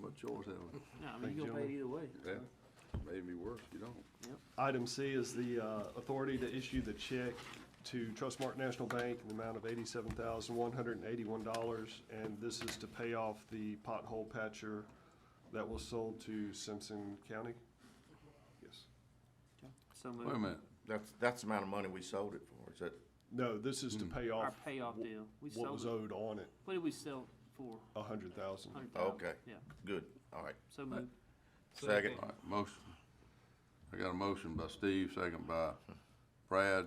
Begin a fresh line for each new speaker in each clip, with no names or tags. much choice, have we?
No, I
Thank
mean,
you,
you're gonna pay it either way.
Yeah, maybe be worse, you don't.
Item C is the uh, authority to issue the check to Trustmark National Bank in the amount of eighty-seven thousand, one hundred and eighty-one dollars. And this is to pay off the pothole patcher that was sold to Simpson County. Yes.
So
Wait a
moved.
minute,
That's, that's the amount of money we sold it for, is that,
No, this is to pay
Our
off
payoff deal. We
what was
sold it.
owed on it,
What did we sell it for?
a hundred thousand.
Hundred thousand?
Okay.
Yeah,
good, all right.
so moved.
Second,
all right, motion. I got a motion by Steve, second by Brad.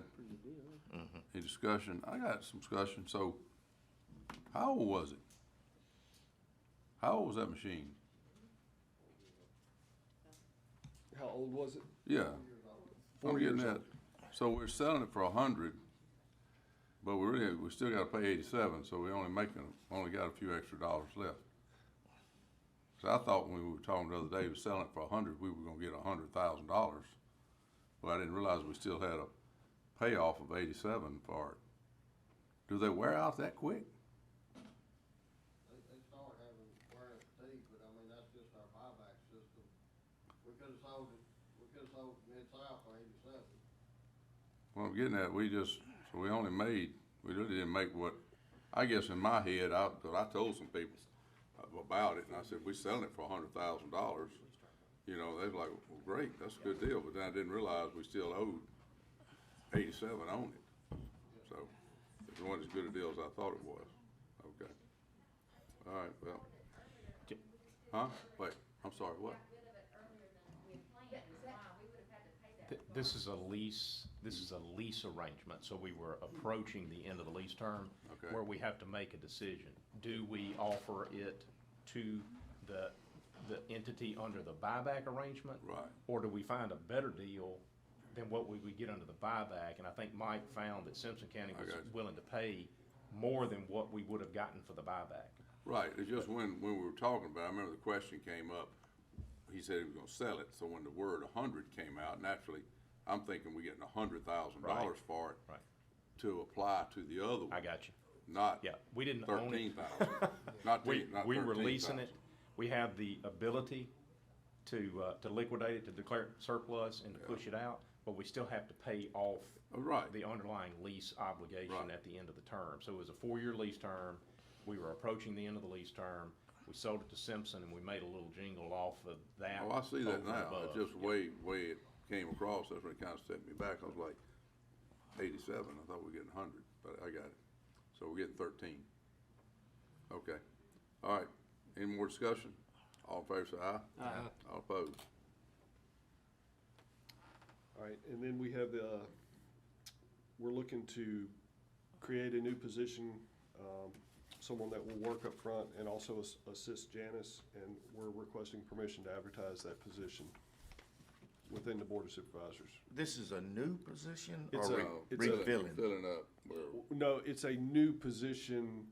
Any discussion? I got some discussion, so how old was it? How old was that machine?
How old was it?
Yeah. I'm
Four
getting
years
that. So we're selling it for a hundred, but we really, we still gotta pay eighty-seven, so we only making, only got a few extra dollars left. So I thought when we were talking the other day, we selling it for a hundred, we were gonna get a hundred thousand dollars. But I didn't realize we still had a payoff of eighty-seven for it. Do they wear out that quick?
They, they start having wear its teeth, but I mean, that's just our buyback system. We could've sold it, we could've sold mid-south for eighty-seven.
Well, I'm getting at, we just, so we only made, we really didn't make what, I guess in my head, I, 'cause I told some people about it, and I said, we selling it for a hundred thousand dollars. You know, they was like, well, great, that's a good deal, but then I didn't realize we still owed eighty-seven on it. So, it wasn't as good a deal as I thought it was, okay. All right, well,
J-
huh, wait, I'm sorry, what?
rid of it earlier than we had planned, wow, we would have had to pay that.
Th- This is a lease, this is a lease arrangement, so we were approaching the end of the lease term.
Okay.
Where we have to make a decision. Do we offer it to the, the entity under the buyback arrangement?
Right.
Or do we find a better deal than what we would get under the buyback? And I think Mike found that Simpson County
I
was
got you.
willing to pay more than what we would have gotten for the buyback.
Right, it's just when, when we were talking about, it, I remember the question came up, he said he was gonna sell it, so when the word a hundred came out, naturally, I'm thinking we're getting a hundred thousand dollars for it.
Right.
To apply to the other one.
I got you.
Not.
Yeah, we didn't own
Thirteen
it.
thousand, not
We,
ten, not
we
thirteen
releasing it,
thousand.
we have the ability to, uh, to liquidate it, to declare it surplus and to push it out, but we still have to pay off
Oh, right.
the underlying lease obligation
Right.
at the end of the term. So it was a four-year lease term, we were approaching the end of the lease term, we sold it to Simpson and we made a little jingle off of that.
Oh, I see
over
that
and
now,
above.
it's just the way, way it came across, that's when it kinda set me back, I was like, eighty-seven, I thought we were getting a hundred, but I got it, so we're getting thirteen. Okay, all right, any more discussion? All in favor, say aye.
Aye.
All opposed?
All right, and then we have the, uh, we're looking to create a new position, um, someone that will work up front and also as- assist Janice, and we're requesting permission to advertise that position within the Board of Supervisors.
this is a new position
It's
or
a-
re-
No,
it's a-
refilling?
Filling up, where,
No, it's a new position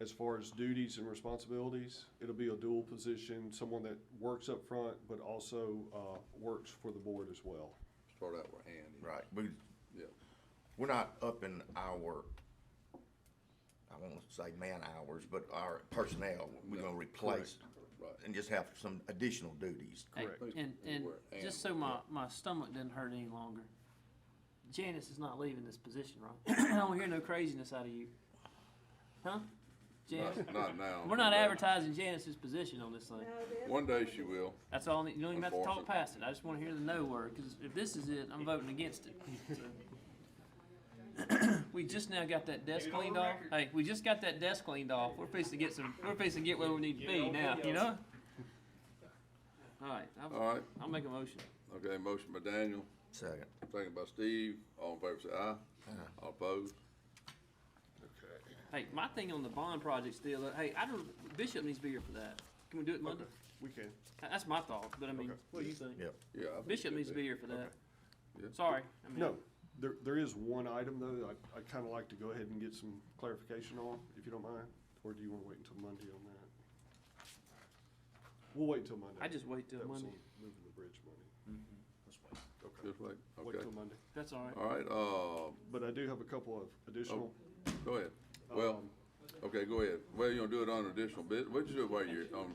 as far as duties and responsibilities. It'll be a dual position, someone that works up front but also uh, works for the board as well.
start out with Andy.
Right, we,
Yeah,
we're not upping our, I won't say man hours, but our personnel, we're
No,
gonna replace
right.
and just have some additional duties.
Hey,
Correct.
And, and just so my, my stomach doesn't hurt any longer, Janice is not leaving this position, right? I don't hear no craziness out of you. Huh? Janice,
Not- not now.
we're not advertising Janice's position on this thing.
One day she will.
That's all, I need- you don't even have to talk
Unfortunately.
past it. I just wanna hear the no word, cause if this is it, I'm voting against it. So. We just now got that desk cleaned off. Hey, we just got that desk cleaned off. We're fixing to get some, we're fixing to get where we need to be now, you know? Alright, I'll,
Alright.
I'll make a motion.
Okay, motion by Daniel,
Second.
second by Steve, all in favor, say aye. All opposed?
Hey, my thing on the bond project still, uh, hey, I don't, Bishop needs to be here for that. Can we do it Monday?
We can.
Tha- That's my thought, but I mean, what do you think?
Yep.
Yeah. I think
Bishop
it
needs to
should
be here for that.
Yeah.
Sorry. I mean,
No, there, there is one item though, that I, I'd kinda like to go ahead and get some clarification on, if you don't mind, or do you wanna wait until Monday on that? We'll wait until Monday.
I just wait till
That was
Monday.
on Moving the bridge money.
Just like,
Wait
okay.
till Monday,
That's alright.
All right, uh,
but I do have a couple of additional,
Oh,
um,
go ahead. Well, okay, go ahead. Well, you gonna do it on additional bit, what'd you do while you're on